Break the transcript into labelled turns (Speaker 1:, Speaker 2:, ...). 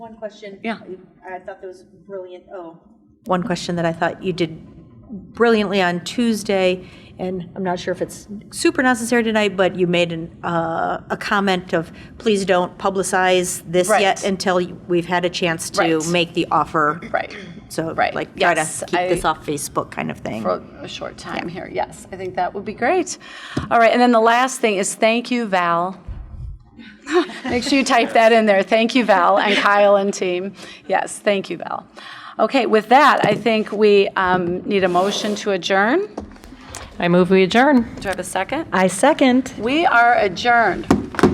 Speaker 1: One question.
Speaker 2: Yeah.
Speaker 1: I thought that was brilliant, oh. One question that I thought you did brilliantly on Tuesday, and I'm not sure if it's super necessary tonight, but you made an, uh, a comment of, please don't publicize this
Speaker 3: Right.
Speaker 1: yet until you- we've had a chance to
Speaker 3: Right.
Speaker 1: make the offer.
Speaker 3: Right.
Speaker 1: So,
Speaker 3: Right.
Speaker 1: like, try to
Speaker 3: Yes,
Speaker 1: keep this
Speaker 3: I-
Speaker 1: off Facebook kind of thing.
Speaker 3: for a short time here. Yes, I think that would be great. All right, and then the last thing is thank you, Val. Make sure you type that in there. Thank you, Val, and Kyle and team. Yes, thank you, Val. Okay, with that, I think we um, need a motion to adjourn.
Speaker 2: I move we adjourn.
Speaker 3: Do I have a second?
Speaker 4: I second.
Speaker 3: We are adjourned.